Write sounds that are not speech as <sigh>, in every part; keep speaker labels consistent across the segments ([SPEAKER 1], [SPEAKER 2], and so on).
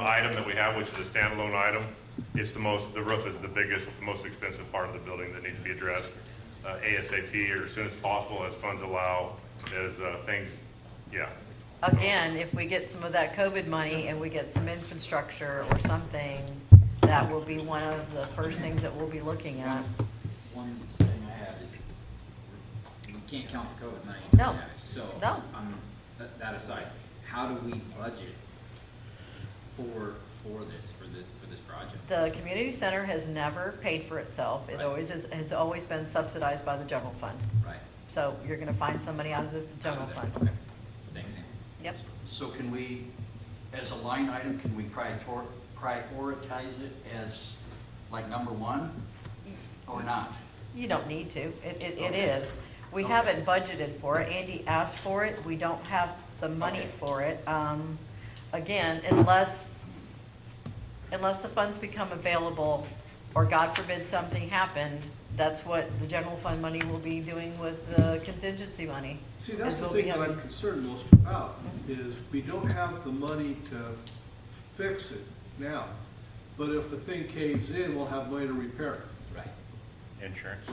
[SPEAKER 1] item that we have, which is a standalone item, it's the most, the roof is the biggest, the most expensive part of the building that needs to be addressed uh, ASAP or as soon as possible as funds allow, as uh, things, yeah.
[SPEAKER 2] Again, if we get some of that COVID money and we get some infrastructure or something, that will be one of the first things that we'll be looking at.
[SPEAKER 3] One thing I have is, you can't count the COVID money. until
[SPEAKER 2] No.
[SPEAKER 3] you have it. So,
[SPEAKER 2] No.
[SPEAKER 3] um, tha- that aside, how do we budget for, for this, for the, for this project?
[SPEAKER 2] The community center has never paid for itself. It
[SPEAKER 3] Right.
[SPEAKER 2] always is, has always been subsidized by the general fund.
[SPEAKER 3] Right?
[SPEAKER 2] So you're gonna find somebody out of the general
[SPEAKER 3] Out of
[SPEAKER 2] fund.
[SPEAKER 3] there. Okay. Thanks, Ann.
[SPEAKER 2] Yep.
[SPEAKER 4] So can we, as a line item, can we prior- prioritize it as like number one or not?
[SPEAKER 2] You don't need to. It, it, it
[SPEAKER 4] Okay.
[SPEAKER 2] is. We
[SPEAKER 4] Okay.
[SPEAKER 2] haven't budgeted for it. Andy asked for it. We don't have the money
[SPEAKER 4] Okay.
[SPEAKER 2] for it. Um, again, unless, unless the funds become available or God forbid something happened, that's what the general fund money will be doing with the contingency money.
[SPEAKER 5] See, that's
[SPEAKER 2] Is
[SPEAKER 5] the
[SPEAKER 2] what we
[SPEAKER 5] thing that
[SPEAKER 2] have.
[SPEAKER 5] I'm concerned most about, is we don't have the money to fix it now. But if the thing caves in, we'll have money to repair it.
[SPEAKER 3] Right.
[SPEAKER 1] Insurance.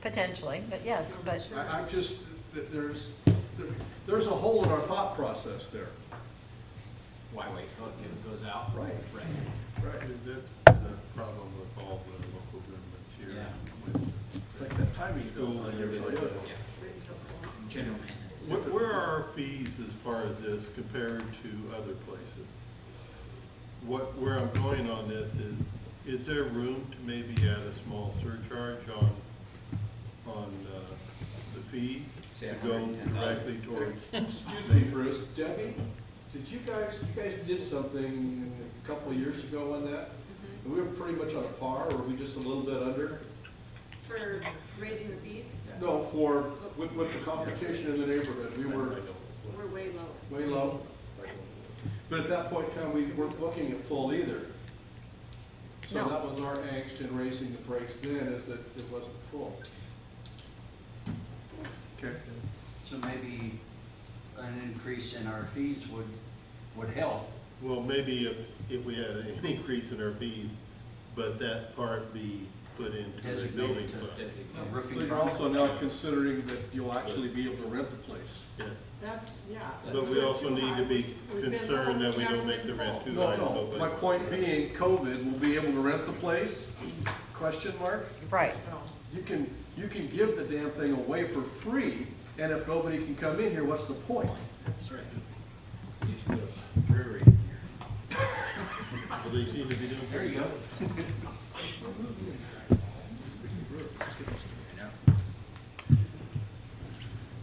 [SPEAKER 2] Potentially, but yes, but
[SPEAKER 5] I, I just, th- there's, there- there's a hole in our thought process there.
[SPEAKER 3] Why wait till it goes out?
[SPEAKER 5] Right.
[SPEAKER 3] Right.
[SPEAKER 5] Right.
[SPEAKER 6] And That's the problem with all the local governments here.
[SPEAKER 5] It's like that timing
[SPEAKER 6] School and everything else.
[SPEAKER 3] Yeah. General maintenance.
[SPEAKER 6] Where, where are our fees as far as this compared to other places? What, where I'm going on this is, is there room to maybe add a small surcharge on, on, uh, the fees?
[SPEAKER 3] Say
[SPEAKER 6] To go
[SPEAKER 3] 110,000.
[SPEAKER 6] directly towards,
[SPEAKER 7] Excuse me, Bruce, Debbie, did you guys, you guys did something a couple of years ago on that?
[SPEAKER 2] Mm-hmm.
[SPEAKER 7] And we were pretty much on par, or were we just a little bit under?
[SPEAKER 8] For raising the fees,
[SPEAKER 7] No, for, with, with the competition in the neighborhood, we
[SPEAKER 6] I
[SPEAKER 7] were
[SPEAKER 6] don't,
[SPEAKER 8] we're way lower.
[SPEAKER 7] way low. But at that point in time, we weren't looking at full either. So
[SPEAKER 2] No.
[SPEAKER 7] that was our angst in raising the price then, is that it wasn't full.
[SPEAKER 5] Okay.
[SPEAKER 4] So maybe an increase in our fees would, would help.
[SPEAKER 6] Well, maybe if, if we had an <laughs> increase in our fees, but that part be put into the
[SPEAKER 4] Designated
[SPEAKER 6] building
[SPEAKER 4] to
[SPEAKER 6] fund.
[SPEAKER 3] Designate.
[SPEAKER 4] A
[SPEAKER 5] But
[SPEAKER 4] Roofing
[SPEAKER 5] you're
[SPEAKER 4] firm,
[SPEAKER 5] also now considering that you'll actually be able to rent the place.
[SPEAKER 6] Yeah.
[SPEAKER 9] That's, yeah.
[SPEAKER 6] But we also need to be concerned that we don't make the rent too
[SPEAKER 5] No,
[SPEAKER 6] high.
[SPEAKER 5] no, my point being, COVID, will be able to rent the place? Question mark?
[SPEAKER 2] right.
[SPEAKER 4] Oh.
[SPEAKER 5] You can, you can give the damn thing away for free, and if nobody can come in here, what's the point?
[SPEAKER 3] That's right.
[SPEAKER 4] brewery.
[SPEAKER 6] Well, they seem to be doing
[SPEAKER 4] There
[SPEAKER 6] pretty
[SPEAKER 4] you
[SPEAKER 6] good.
[SPEAKER 4] go.
[SPEAKER 3] I know.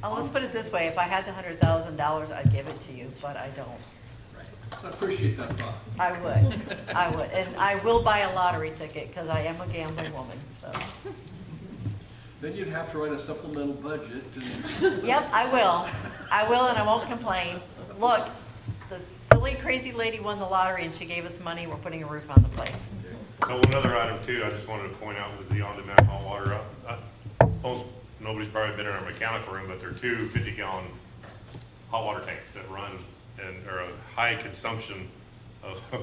[SPEAKER 2] Oh, let's put it this way. If I had the hundred thousand dollars, I'd give it to you, but I don't.
[SPEAKER 3] Right.
[SPEAKER 5] I appreciate that thought.
[SPEAKER 2] I would, I would, and I will buy a lottery ticket, because I am a gambling woman, so.
[SPEAKER 5] Then you'd have to write a supplemental budget and.
[SPEAKER 2] Yep, I will, I will, and I won't complain. Look, the silly, crazy lady won the lottery, and she gave us money, we're putting a roof on the place.
[SPEAKER 1] So Uh, another item too, I just wanted to point out was the on-demand hot water. Uh, uh, Most, nobody's probably been in our mechanical room, but there are two 50-gallon hot water tanks that run and are a high consumption of, <laughs>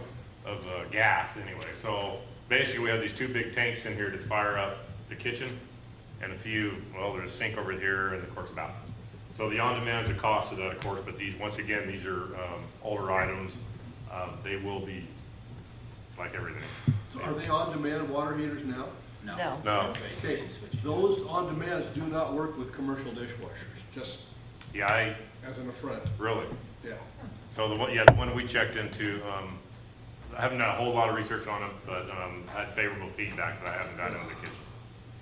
[SPEAKER 1] of uh, gas anyway. So basically, we have these two big tanks in here to fire up the kitchen and a few, well, there's a sink over here and of course bathrooms. So the on-demand is a cost of that, of course, but these, once again, these are um, older items. Uh, They will be like everything.
[SPEAKER 5] So Are they on-demand water heaters now?
[SPEAKER 2] No.
[SPEAKER 1] No.
[SPEAKER 5] Okay, those on-demands do not work with commercial dishwashers, just
[SPEAKER 1] Yeah, I,
[SPEAKER 5] as an affront,
[SPEAKER 1] really.
[SPEAKER 5] yeah.
[SPEAKER 1] So the one, yeah, the one we checked into, um, I haven't done a whole lot of research on it, but, um, had favorable feedback that I haven't gotten on the kitchen.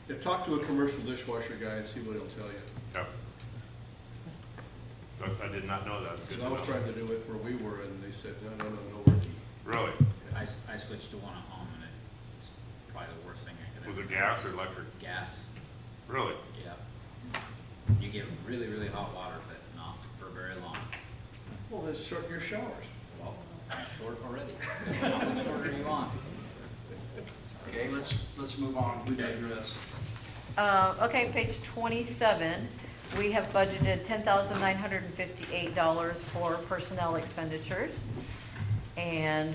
[SPEAKER 5] Yeah, talk to a commercial dishwasher guy and see what he'll tell you.
[SPEAKER 1] Yeah. But I did not know that. It's good to
[SPEAKER 5] 'Cause I was
[SPEAKER 1] know.
[SPEAKER 5] trying to do it where we were, and they said, no, no, no, no, Ricky.
[SPEAKER 1] Really?
[SPEAKER 3] I, s- I switched to one at home and it's probably the worst thing I could ever.
[SPEAKER 1] Was it gas or electric?
[SPEAKER 3] Gas.
[SPEAKER 1] Really?
[SPEAKER 3] Yeah. You get really, really hot water, but not for very long.
[SPEAKER 5] Well, then shorten your showers.
[SPEAKER 3] Well, I'm short already. So how much longer do you want?
[SPEAKER 4] Okay, let's, let's move on.
[SPEAKER 5] We digress.
[SPEAKER 2] Uh, okay, page twenty-seven, we have budgeted ten thousand nine hundred and fifty-eight dollars for personnel expenditures. And